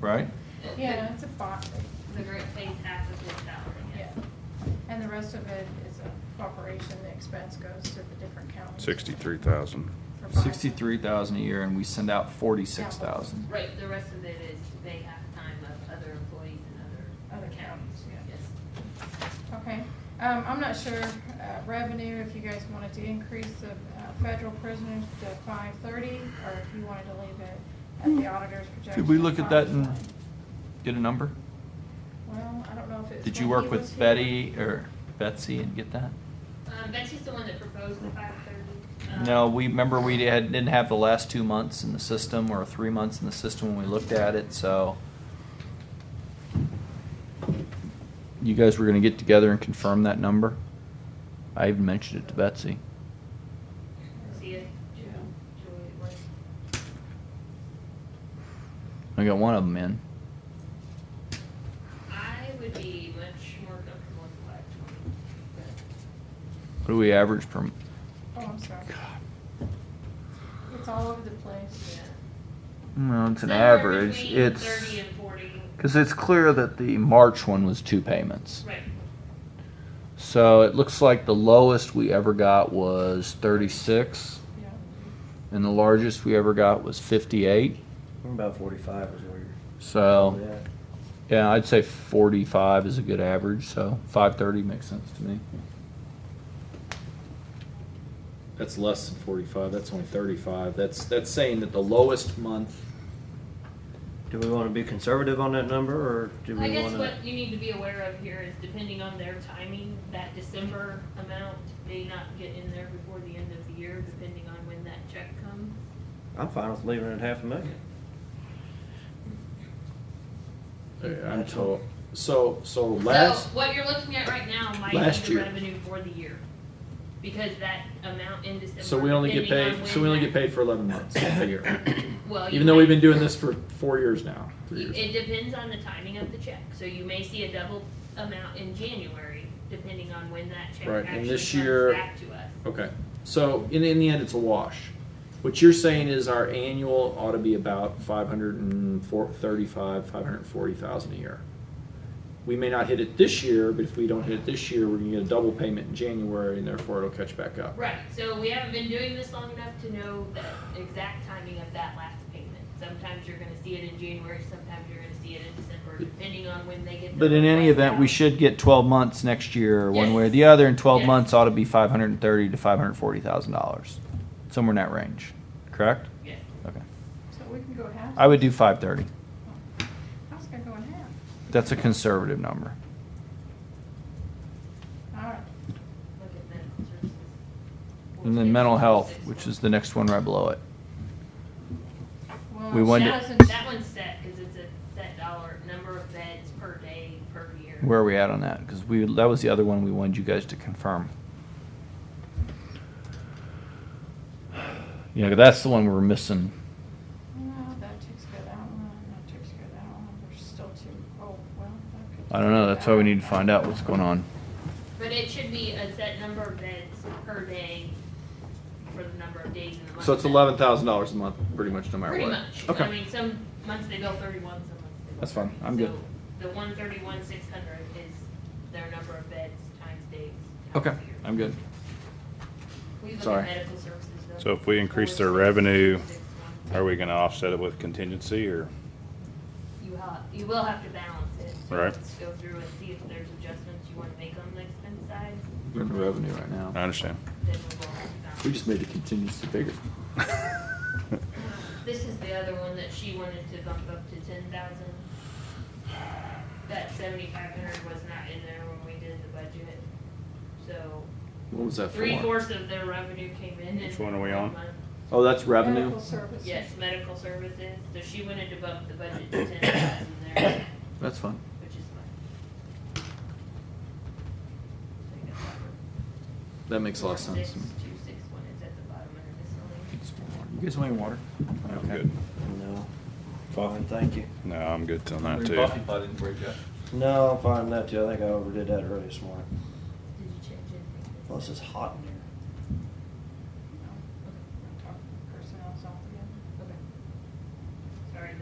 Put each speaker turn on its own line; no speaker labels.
right?
Yeah, it's a box,
The great phase half is worked out, I
yeah.
guess.
And the rest of it is a corporation, the expense goes to the different counties.
Sixty-three thousand.
for five.
Sixty-three thousand a year and we send out forty-six thousand.
Right, the rest of it is they have time of other employees and other.
Other counties, yeah.
Yes.
Okay, um, I'm not sure, uh, revenue, if you guys wanted to increase the, uh, federal prisoners to five thirty, or if you wanted to leave it at the auditor's projection.
Mm. Could we look at that and
5.9.
get a number?
Well, I don't know if it's.
Did you
when
work
he was
with
here.
Betty or Betsy and get that?
Um, Betsy's the one that proposed the five thirty. Um,
No, we, remember we had, didn't have the last two months in the system or three months in the system when we looked at it, so. You guys were gonna get together and confirm that number? I even mentioned it to Betsy.
See it? Joy, Joy, what?
I got one of them in.
I would be much more comfortable with the five twenty, but
What do we average per,
Oh, I'm sorry. It's all over the place.
yeah.
no, it's an
Somewhere
average,
between
it's,
Thirty and forty,
cause it's clear that the March one was two payments.
right.
So it looks like the lowest we ever got was thirty-six,
Yeah.
and the largest we ever got was fifty-eight.
About forty-five is where you're.
So,
Yeah.
yeah, I'd say 45 is a good average, so 530 makes sense to me. That's less than 45, that's only 35. That's, that's saying that the lowest month.
Do we wanna be conservative on that number, or do
I
we
guess
wanna?
what you need to be aware of here is depending on their timing, that December amount may not get in there before the end of the year, depending on when that check comes.
I'm fine with leaving it at half a million.
I'm told, so, so last,
So what you're looking at right now might
Last
be the
year.
revenue for the year, because that amount in December.
so we only get
depending on
paid, so we
when
only get
that-
paid for 11 months a year.
Well, you
Even though we've been
might-
doing this for four years now, three
you- It
years.
depends on the timing of the check, so you may see a double amount in January, depending on when that check
Right, and
actually
this
comes
year-
back to us.
Okay. So in, in the end, it's a wash. What you're saying is our annual ought to be about 535, 540,000 a year. We may not hit it this year, but if we don't hit it this year, we're going to get a double payment in January, and therefore it'll catch back up.
Right, so we haven't been doing this long enough to know the exact timing of that last payment. Sometimes you're gonna see it in January, sometimes you're gonna see it in December, depending on when they get.
But
their
in any
request
event, we
out.
should get 12 months next year, one
Yes.
way or the other, and 12
Yes.
months ought to be 530 to 540 thousand dollars, somewhere in that range. Correct?
Yes.
Okay.
So we can go half.
I would do 530.
I was gonna go in half.
That's a conservative number.
All right.
Look at mental services.
And then mental health, which is the next one right below it.
Well,
We wonder-
that
That
doesn't-
one's, that one's set, cause it's a set dollar, number of beds per day, per year.
Where are we at on that? Because we, that was the other one we wanted you guys to confirm. Yeah, that's the one we were missing.
No, that takes care of that one, that takes care of that one, there's still two, oh, well, that could.
I don't know, that's why we need to find out what's going on.
But it should be a set number of beds per day for the number of days in the month. that-
thousand dollars a month, pretty much, no
Pretty much. I mean, some months they go thirty-one, some months they go.
That's fine.
30.
I'm good.
So The one thirty-one, six hundred is their number of beds times days. times
Okay,
year.
I'm good.
We look
sorry.
at medical services though.
So if we increase their
Four, six,
revenue,
six, one.
Are we gonna offset it with contingency or?
You have, you will have to balance it. So
Right.
Let's go through and see if there's adjustments you wanna make on the expense side,
We're in the revenue right
I
now.
understand.
then we will have to balance.
We just made the contingency bigger.
This is the other one that she wanted to bump up to ten thousand. That seventy-five hundred was not in there when we did the budget, so
What was that
three
for?
fourths of their revenue came in. in
Which one are we
one
on?
month.
Oh, that's revenue?
Medical services.
Yes, medical services, so she wanted to bump the budget to ten thousand there,
That's fine.
which is fine. So you got that one.
That makes a lot of sense. to me.
46261 is at the bottom under miscellaneous.
You guys want any water?
I'm
Okay.
good.
No. Fine, thank you.
No, I'm good on that
Your
too.
coffee pot didn't break up.
No, I'm fine with that too. I think I overdid that early this morning.
Did you change anything?
Plus, it's hot in here.